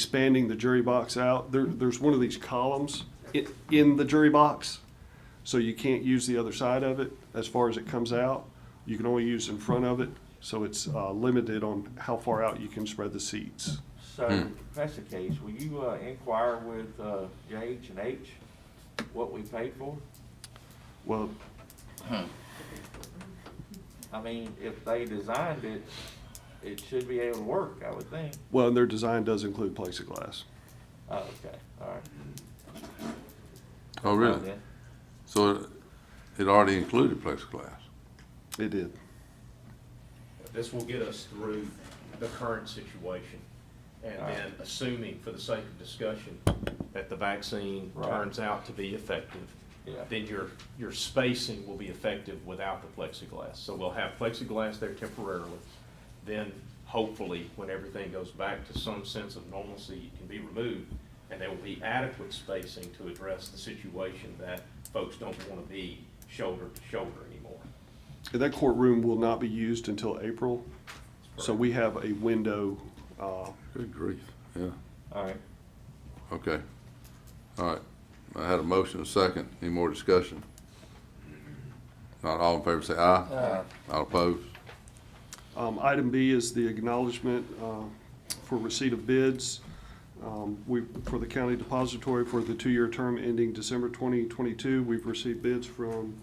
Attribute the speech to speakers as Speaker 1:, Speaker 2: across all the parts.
Speaker 1: expanding the jury box out, there, there's one of these columns i- in the jury box, so you can't use the other side of it as far as it comes out. You can only use in front of it, so it's, uh, limited on how far out you can spread the seats.
Speaker 2: So, if that's the case, will you uh, inquire with uh, J.H. and H what we paid for?
Speaker 1: Well,
Speaker 2: I mean, if they designed it, it should be able to work, I would think.
Speaker 1: well, and their design does include plexiglass.
Speaker 2: Oh, okay, all right.
Speaker 3: Oh, really?
Speaker 2: Then,
Speaker 3: So it already included plexiglass?
Speaker 1: It did.
Speaker 4: This will get us through the current situation. And
Speaker 2: All right.
Speaker 4: then assuming, for the sake of discussion, that the vaccine
Speaker 2: Right.
Speaker 4: turns out to be effective,
Speaker 2: Yeah.
Speaker 4: then your, your spacing will be effective without the plexiglass. So we'll have plexiglass there temporarily. Then hopefully, when everything goes back to some sense of normalcy, it can be removed. And there will be adequate spacing to address the situation that folks don't want to be shoulder to shoulder anymore.
Speaker 1: And that courtroom will not be used until April, so we have a window, uh,
Speaker 3: Good grief, yeah,
Speaker 2: All right,
Speaker 3: okay. All right, I had a motion, a second, any more discussion? Not all in favor, say aye. Aye. All opposed?
Speaker 1: Um, Item B is the acknowledgement uh, for receipt of bids Um, we, for the county depository for the two-year term ending December 2022. We've received bids from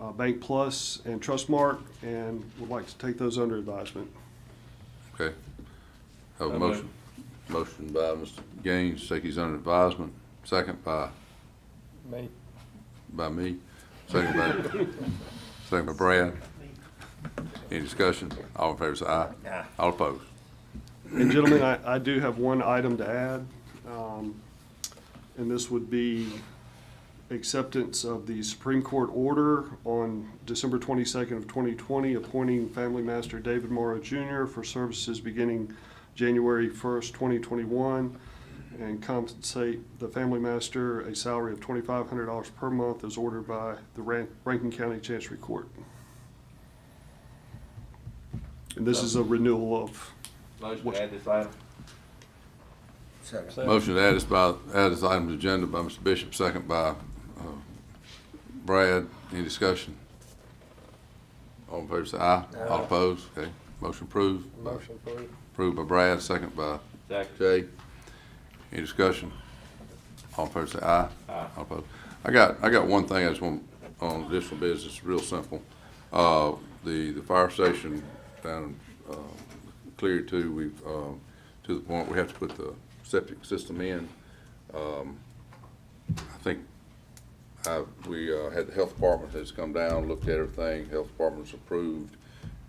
Speaker 1: uh, Bank Plus and Trustmark, and would like to take those under advisement.
Speaker 3: Okay. Have
Speaker 2: So
Speaker 3: a motion, motion by Mr. Gaines, take these under advisement, second by? Me. By me, second by, second by Brad. Any discussion? All in favor, say aye.
Speaker 2: Aye.
Speaker 3: All opposed?
Speaker 1: And gentlemen, I, I do have one item to add, um, and this would be acceptance of the Supreme Court order on December twenty-second of twenty twenty, appointing Family Master David Morrow Jr. for services beginning January first, twenty twenty-one, and compensate the Family Master a salary of twenty-five hundred dollars per month as ordered by the Ran- Rankin County Chancery Court. And this is a renewal of
Speaker 2: motion to add this item.
Speaker 3: Motion to add this by, add this item to agenda by Mr. Bishop, second by uh, Brad. Any discussion? All in favor, say aye. All opposed? Okay, motion approved. Motion approved. Approved by Brad, second by
Speaker 2: Second.
Speaker 3: Jay. Any discussion? All in favor, say aye.
Speaker 2: Aye.
Speaker 3: All opposed. I got, I got one thing I just want, on additional business, real simple. Uh, the, the fire station down, uh, Clear Two, we've, um, to the point we have to put the septic system in. Um, I think, I, we, uh, had the health department that's come down, looked at everything, health department's approved,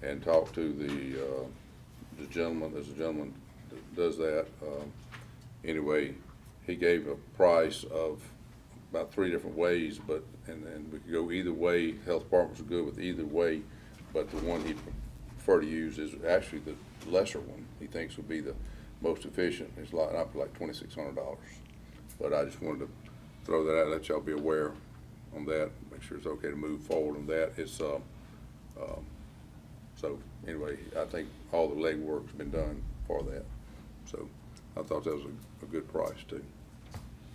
Speaker 3: and talked to the, uh, the gentleman, there's a gentleman that does that, um, anyway, he gave a price of about three different ways, but, and, and we could go either way, health departments are good with either way, but the one he preferred to use is actually the lesser one, he thinks would be the most efficient, it's like, up to like twenty-six hundred dollars. But I just wanted to throw that out, let y'all be aware on that, make sure it's okay to move forward on that, it's, uh, um, so anyway, I think all the legwork's been done for that. So I thought that was a, a good price too.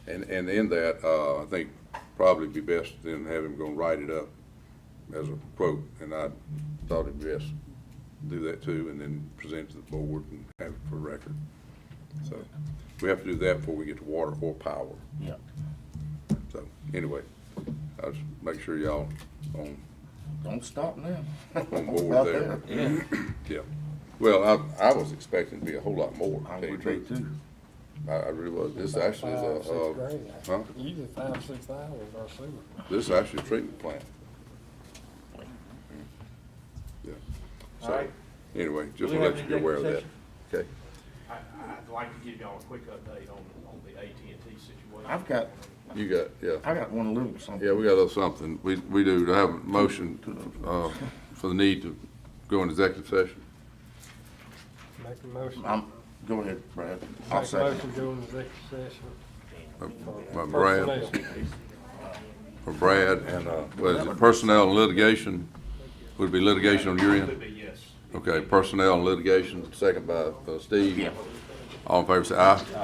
Speaker 3: And, and in that, uh, I think probably be best then have him go and write it up as a quote. And I thought it'd be best to do that too and then present it to the board and have it for record. So we have to do that before we get to water or power. Yeah. So anyway, I'll just make sure y'all on
Speaker 5: Don't stop now.
Speaker 3: on board there.
Speaker 2: Yeah,
Speaker 3: Yeah. Well, I, I was expecting to be a whole lot more, to
Speaker 5: I
Speaker 3: tell you
Speaker 5: would
Speaker 3: the
Speaker 5: be
Speaker 3: truth.
Speaker 5: too.
Speaker 3: I, I really was. This actually
Speaker 6: Five,
Speaker 3: is
Speaker 6: six
Speaker 3: a, uh,
Speaker 6: grand.
Speaker 3: huh?
Speaker 6: Usually five, six hours, I assume.
Speaker 3: this is actually a treatment plant. Yeah.
Speaker 2: all right.
Speaker 3: So, anyway, just
Speaker 2: we
Speaker 3: to
Speaker 2: have
Speaker 3: let you
Speaker 2: an
Speaker 3: be aware of that.
Speaker 2: executive
Speaker 3: Okay.
Speaker 4: I, I'd like to give y'all a quick update on, on the AT&T situation.
Speaker 5: I've got,
Speaker 3: You got, yeah.
Speaker 5: I got one little something.
Speaker 3: Yeah, we got a little something. We, we do have a motion, uh, for the need to go into executive session.
Speaker 6: Make a motion.
Speaker 5: I'm, go ahead, Brad. I'll
Speaker 6: Make a
Speaker 5: second.
Speaker 6: motion, go into executive session.
Speaker 3: By Uh, Brad,
Speaker 6: Personnel.
Speaker 3: for Brad and, uh, what is it, personnel and litigation? Would it be litigation on your end?
Speaker 4: Could be yes.
Speaker 3: Okay, personnel and litigation, second by uh, Steve. All in favor, say aye.